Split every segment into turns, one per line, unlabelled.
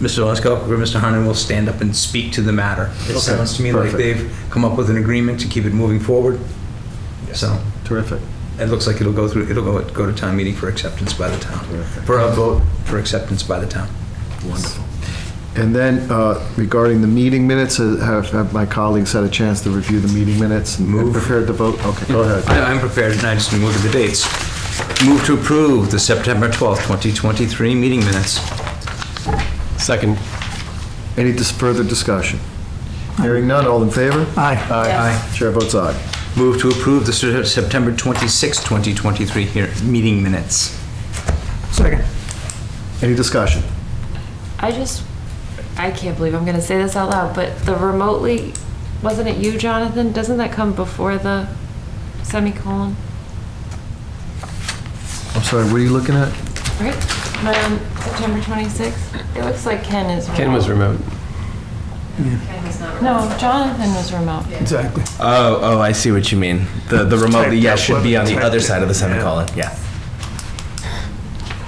Mr. Lesko or Mr. Harnan will stand up and speak to the matter. It sounds to me like
perfect.
they've come up with an agreement to keep it moving forward. So
Terrific.
it looks like it'll go through, it'll go, go to town meeting for acceptance by the town, for a vote for acceptance by the town.
Wonderful. And then uh, regarding the meeting minutes, uh, have have my colleagues had a chance to review the meeting minutes and
Move.
prepared to vote? Okay, go ahead.
I- I'm prepared, and I just move to the dates. Move to approve the September 12th, 2023 meeting minutes.
Second.
Any dis- further discussion? Hearing none, all in favor?
Aye.
Aye. Chair votes aye.
Move to approve the Se- September 26th, 2023 here, meeting minutes.
Second.
Any discussion?
I just, I can't believe I'm gonna say this out loud, but the remotely, wasn't it you, Jonathan? Doesn't that come before the semicolon?
I'm sorry, what are you looking at?
Right? Am I on September 26th? It looks like Ken is remote.
Ken was remote.
No, Jonathan was remote.
Exactly.
Oh, oh, I see what you mean. The the remotely yes should be on the other side of the semicolon. Yeah.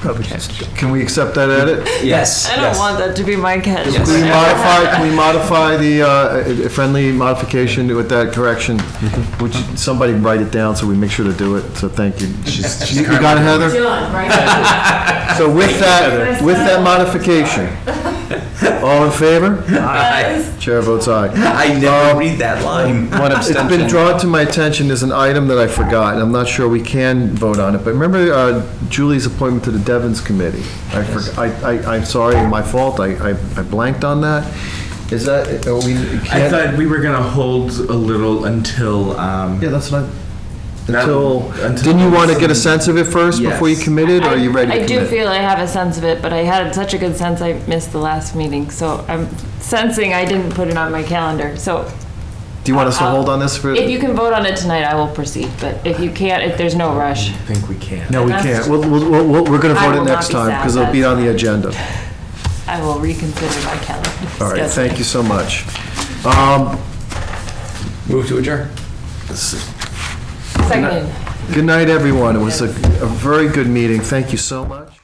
Probably just
Can we accept that edit?
Yes.
I don't want that to be my Ken.
Can we modify, can we modify the uh, friendly modification with that correction? Would you, somebody write it down so we make sure to do it, so thank you. She's- You you got it, Heather? So with that, with that modification, all in favor?
I
Chair votes aye.
I
Um,
never read that line.
It's been drawn to my attention as an item that I forgot, and I'm not sure we can vote on it, but remember uh, Julie's appointment to the Devens Committee? I forgot, I, I, I'm sorry, my fault, I, I I blanked on that. Is that, are we,
I
can't?
thought we were gonna hold a little until. Um,
Yeah, that's not,
Not-
until,
until-
didn't you want to get a sense of it first before you
Yes.
committed, or are you ready to
I do
commit?
feel I have a sense of it, but I had such a good sense I missed the last meeting, so I'm sensing I didn't put it on my calendar, so.
Do you want us to
I'll-
hold on this for?
If you can vote on it tonight, I will proceed, but if you can't, if there's no rush.
I think we can.
No, we can't, we'll, we'll, we'll- we're going to
I
vote
will
it
not
next
be
time,
sad,
because it'll be
that's
on the
fine.
agenda.
I will reconsider my calendar.
All right,
Yes.
thank you so much. Um,
Move to adjourn.
Second.
Good night, everyone, it was a a very good meeting, thank you so much.